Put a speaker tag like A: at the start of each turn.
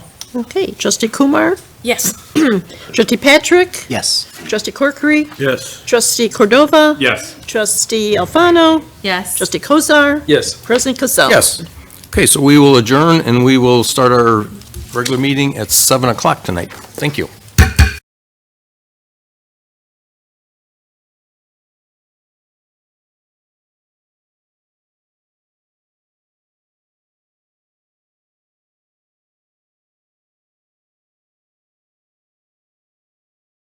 A: Okay, trustee Kumar,
B: Yes.
A: trustee Patrick,
C: Yes.
A: trustee Corkery,
D: Yes.
A: trustee Cordova,
D: Yes.
A: trustee Alfano,
B: Yes.
A: trustee Kozar,
D: Yes.
A: president Cassell.
E: Yes. Okay, so we will adjourn and we will start our regular meeting at 7 o'clock tonight. Thank you.